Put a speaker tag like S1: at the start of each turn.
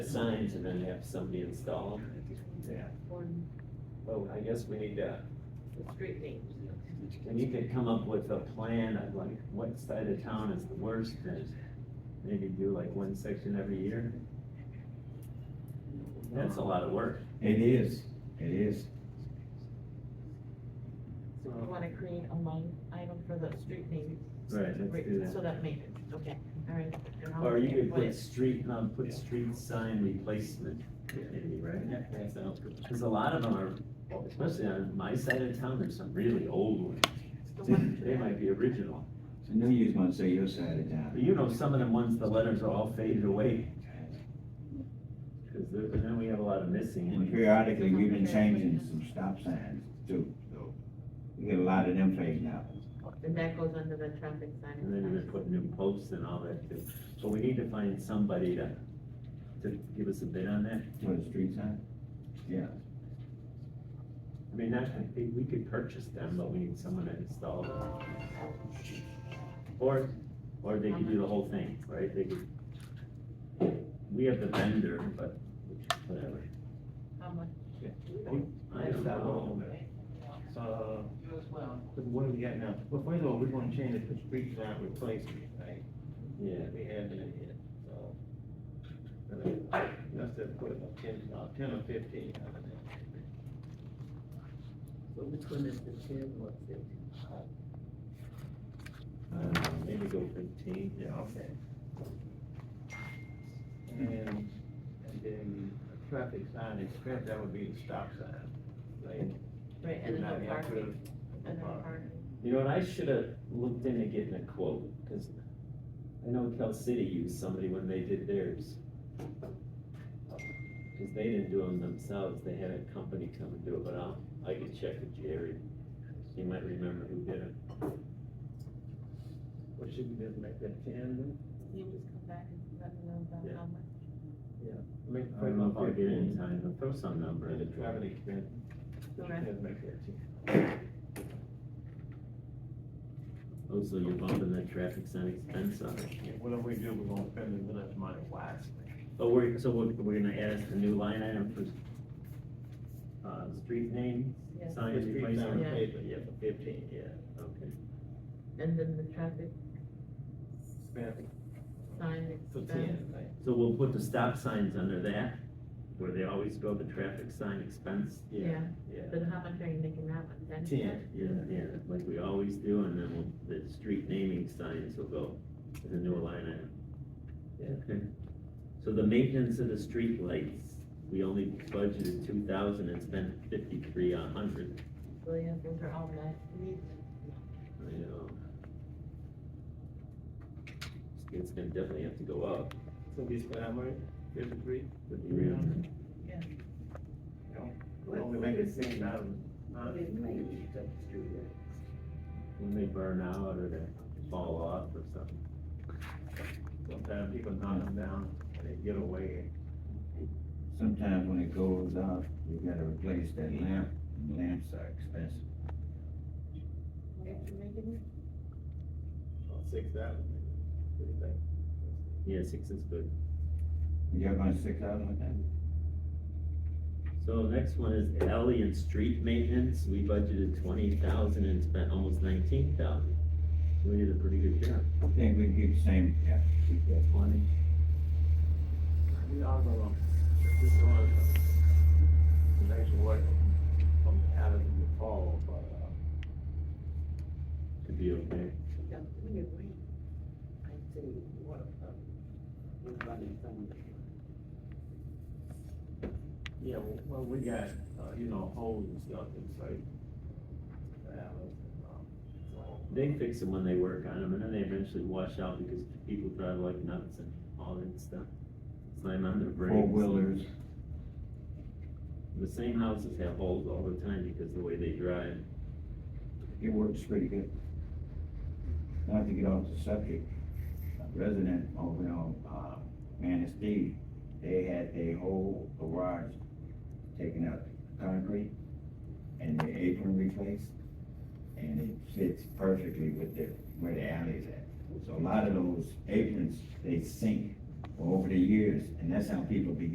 S1: the signs and then have somebody install them. Yeah.
S2: for
S1: Well, I guess we need to,
S2: the street names.
S1: we need to come up with a plan of like what side of town is the worst and maybe do like one section every year. That's a lot of work.
S3: It is, it is.
S2: So
S1: Oh.
S2: we wanna create a line item for the street names.
S1: Right, let's do
S2: So
S1: that.
S2: that made it, okay, all right. And I'll
S1: Or you
S2: make
S1: could
S2: what
S1: put
S2: it-
S1: street, um, put street sign replacement, maybe, right? So, Cause a lot of them are, especially on my side of town, there's some really old ones.
S2: the one-
S1: They might be original.
S3: So no use gonna say your side of
S1: But
S3: town.
S1: You know, some of them ones, the letters are all faded away. Cause there- then we have a lot of missing.
S3: And
S1: ones.
S3: periodically, we've been changing some stop signs too, so we get a lot of them fading out.
S2: And that goes under the traffic sign.
S1: And then we're putting new posts and all that too. But we need to find somebody to, to give us a bid on that.
S3: For the street sign? Yeah.
S1: I mean, that, I think we could purchase them, but we need someone to install them. Or, or they could do the whole thing, right? They could. We have the vendor, but whatever.
S2: How much?
S1: I don't know.
S4: Uh, what do we got now? Well, first of all, we're gonna change it to street sign replacement, right?
S1: Yeah,
S4: We have it in here, so. Let's just put it up ten, uh, ten or fifteen. I don't know.
S5: But which one is the ten, what's it?
S1: uh, maybe go fifteen, yeah.
S4: Okay. And, and then a traffic sign expense, that would be the stop sign, like.
S2: Right, and then the parking, and the
S4: Park.
S2: parking.
S1: You know, what? I should have looked into getting a quote, because I know Cal City used somebody when they did theirs. Because they didn't do them themselves, they had a company come and do it, but I'll, I could check with Jerry. He might remember who did it.
S4: Or should we just make that ten then?
S2: You just come back and let me know about
S1: Yeah.
S2: how much.
S4: Make it
S1: I don't know if I'll get it in
S4: 15,
S1: time, but throw some number
S4: And
S1: in
S4: the
S1: it.
S4: traffic expense,
S2: Okay.
S4: just make that ten.
S1: Oh, so you're bumping that traffic sign expense up.
S4: Yeah, Whatever we do, we're gonna spend as much money wisely.
S1: But we're, so we're, we're gonna add us a new line item for, uh, street name,
S2: Yeah.
S1: sign
S4: The street sign
S1: replacement?
S2: Yeah.
S4: replacement, yeah, for fifteen, yeah.
S1: Okay.
S2: And then the traffic
S4: Spend
S2: sign
S4: for
S2: expense.
S4: ten, right?
S1: So we'll put the stop signs under that, where they always go the traffic sign expense. Yeah.
S2: But how much are you making that one? Ten?
S4: Ten.
S1: Yeah, yeah, like we always do, and then we'll, the street naming signs will go as a new line item. Yeah. So the maintenance of the street lights, we only budgeted two thousand and spent fifty-three, a hundred,
S2: Well, yeah, those are all nice. neat.
S1: I know. It's gonna definitely have to go up.
S4: So we spend how much, fifty-three?
S2: Yeah.
S4: Only make it seem not, not.
S1: When they burn out or they fall off or something.
S4: Sometimes people knock them down and they get away.
S3: Sometimes when it goes out, we gotta replace that lamp, and lamps are expensive.
S2: What you making?
S4: uh, Six thousand. What do you think?
S1: Yeah, six is good.
S3: Y'all gonna stick out with that?
S1: So next one is alley and street maintenance, we budgeted twenty thousand and spent almost nineteen thousand. We did a pretty good job.
S3: I think we keep the same, yeah, keep that twenty.
S4: We all go along. This is one of the- the next one from out of the fall, but, uh,
S1: Could be okay.
S5: We agree. I say, what uh, about, we're running some of it.
S4: yeah, well, we got, uh, you know, holes and stuff inside. Valves and, um, so-
S1: They fix them when they work on them, and then they eventually wash out because people drive like nuts and all that stuff. Slam on their brakes.
S3: Four-wheelers.
S1: The same houses have holes all the time because the way they drive.
S3: It works pretty good. Not to get off the subject, a resident over on, uh, Manistee, they had a whole garage taken out concrete and the apron replaced, and it fits perfectly with the, where the alley's at. So a lot of those aprons, they sink over the years, and that's how people be